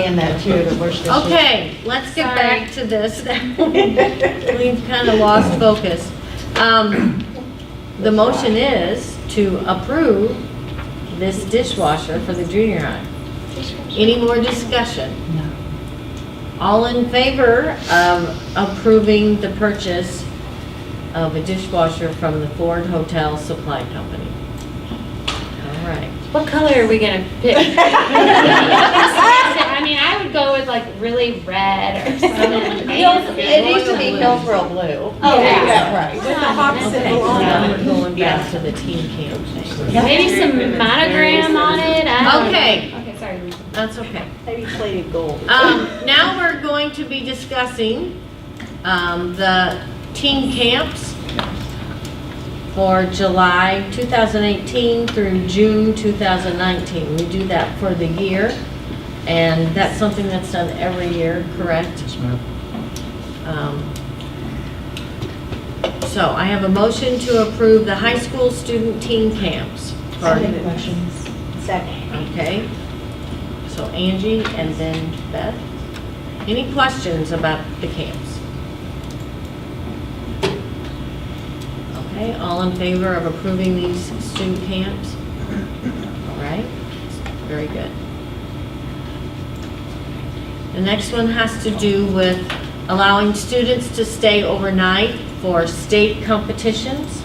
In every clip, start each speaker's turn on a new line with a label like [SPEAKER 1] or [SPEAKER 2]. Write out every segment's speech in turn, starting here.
[SPEAKER 1] saying that too, the worst issue.
[SPEAKER 2] Okay, let's get back to this. We've kind of lost focus. Um, The motion is to approve this dishwasher for the junior high. Any more discussion?
[SPEAKER 1] No.
[SPEAKER 2] All in favor of approving the purchase of a dishwasher from the Ford Hotel Supply Company? All right.
[SPEAKER 3] What color are we gonna pick? I mean, I would go with like really red or something.
[SPEAKER 1] It needs to be Hillsborough blue.
[SPEAKER 3] Oh, yeah.
[SPEAKER 1] right.
[SPEAKER 3] the hawk symbol
[SPEAKER 2] Now we're going back to the teen camp thing.
[SPEAKER 3] Maybe some monogram on it, I don't know.
[SPEAKER 2] Okay.
[SPEAKER 3] Okay, sorry.
[SPEAKER 2] That's okay.
[SPEAKER 4] Maybe plated gold.
[SPEAKER 2] Um, now we're going to be discussing, um, the teen camps for July 2018 through June 2019. We do that for the year, and that's something that's done every year, correct?
[SPEAKER 5] Yes, ma'am.
[SPEAKER 2] Um, So I have a motion to approve the high school student teen camps.
[SPEAKER 1] Any questions?
[SPEAKER 4] Second.
[SPEAKER 2] Okay, so Angie and then Beth. Any questions about the camps? Okay, all in favor of approving these student camps? All right, very good. The next one has to do with allowing students to stay overnight for state competitions.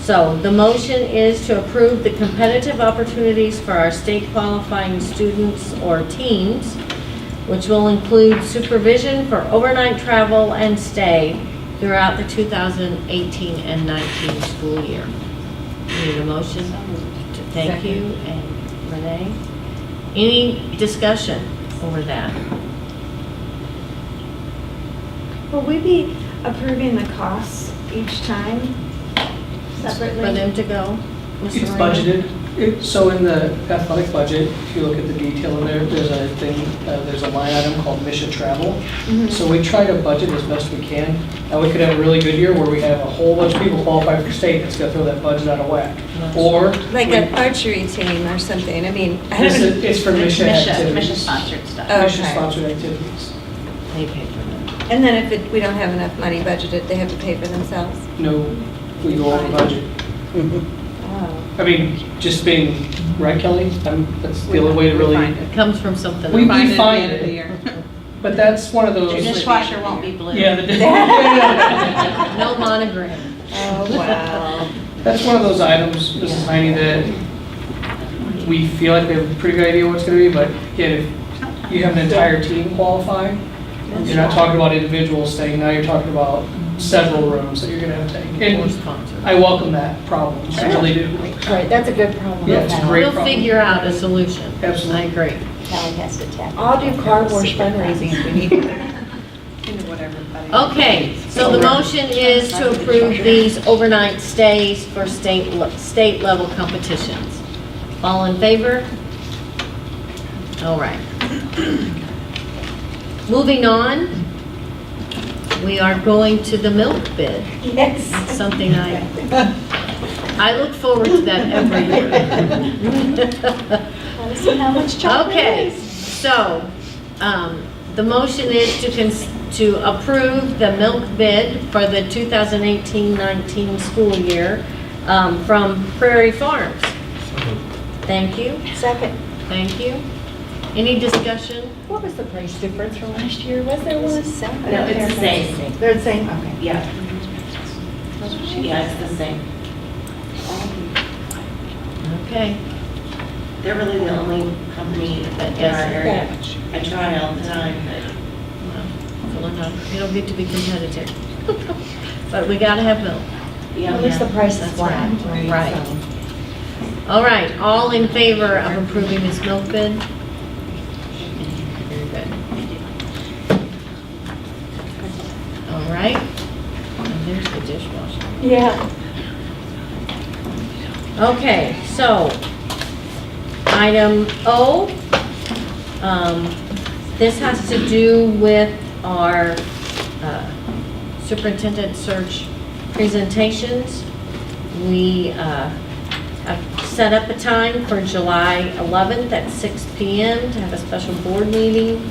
[SPEAKER 2] So the motion is to approve the competitive opportunities for our state qualifying students or teams, which will include supervision for overnight travel and stay throughout the 2018 and 19 school year. Need a motion? to Thank you, and Renee. Any discussion over that?
[SPEAKER 6] Will we be approving the costs each time separately?
[SPEAKER 2] For them to go? Mr.
[SPEAKER 5] It's
[SPEAKER 2] Moreno?
[SPEAKER 5] budgeted, It- so in the athletic budget, if you look at the detail in there, there's a thing, uh, there's a line item called mission travel. So we try to budget as best we can, and we could have a really good year where we have a whole bunch of people qualify for state, that's gonna throw that budget out of whack. Or,
[SPEAKER 7] Like
[SPEAKER 5] we-
[SPEAKER 7] an archery team or something, I mean, I
[SPEAKER 5] this
[SPEAKER 7] don't,
[SPEAKER 5] is, it's for mission activities.
[SPEAKER 8] Mission-sponsored stuff.
[SPEAKER 7] Oh,
[SPEAKER 5] Mission
[SPEAKER 7] okay.
[SPEAKER 5] sponsored activities.
[SPEAKER 2] They paid for that.
[SPEAKER 7] and then if it- we don't have enough money budgeted, they have to pay for themselves.
[SPEAKER 5] No, we go over budget.
[SPEAKER 7] Oh.
[SPEAKER 5] I mean, just being, right Kelly? I'm- That's the only way to really,
[SPEAKER 2] It comes from something.
[SPEAKER 5] We-
[SPEAKER 2] about-
[SPEAKER 8] Find it at
[SPEAKER 5] find
[SPEAKER 8] the end of the
[SPEAKER 5] it.
[SPEAKER 8] year.
[SPEAKER 5] but that's one of those.
[SPEAKER 8] Your dishwasher won't be blue.
[SPEAKER 5] Yeah, the-
[SPEAKER 2] No monogram.
[SPEAKER 7] Oh, wow.
[SPEAKER 5] That's one of those items, Mrs. Heine, that we feel like we have a pretty good idea what it's gonna be, but yet if you have an entire team qualify, you're not talking about individuals staying, now you're talking about several rooms that you're gonna have to take.
[SPEAKER 2] Or
[SPEAKER 5] And
[SPEAKER 2] sponsor.
[SPEAKER 5] I welcome that problem, I really do.
[SPEAKER 4] Right, that's a good problem.
[SPEAKER 5] Yeah, it's great
[SPEAKER 2] We'll
[SPEAKER 5] problem.
[SPEAKER 2] figure out a solution. I
[SPEAKER 5] Absolutely.
[SPEAKER 2] agree.
[SPEAKER 4] Kelly has to tackle.
[SPEAKER 7] I'll do car wash fundraising if we need it.
[SPEAKER 2] Okay, so the motion is to approve these overnight stays for state, le- state level competitions. All in favor? All right. Moving on, we are going to the milk bid.
[SPEAKER 4] Yes.
[SPEAKER 2] It's something I, I look forward to that every year.
[SPEAKER 4] Wanna see how much chocolate
[SPEAKER 2] Okay,
[SPEAKER 4] is?
[SPEAKER 2] so, um, the motion is to cons, to approve the milk bid for the 2018-19 school year, um, from Prairie Farms. Thank you,
[SPEAKER 4] Second.
[SPEAKER 2] thank you. Any discussion?
[SPEAKER 4] What was the price difference from last year? Was there one?
[SPEAKER 8] No, it's the same.
[SPEAKER 4] They're the same, okay.
[SPEAKER 8] Yeah. Yeah, it's the same.
[SPEAKER 2] Okay,
[SPEAKER 8] They're really the only company that in our area. I try all the time, but
[SPEAKER 2] well, well, enough. it'll get to be competitive. But we gotta have milk.
[SPEAKER 8] yeah.
[SPEAKER 4] At least the price is
[SPEAKER 2] That's
[SPEAKER 4] flat.
[SPEAKER 2] right. Right. All right, all in favor of approving this milk bid? Very good. All right. And there's the dishwasher.
[SPEAKER 4] Yeah.
[SPEAKER 2] Okay, so, item O, um, this has to do with our uh, superintendent search presentations. We uh, have set up a time for July 11th at 6 PM to have a special board meeting.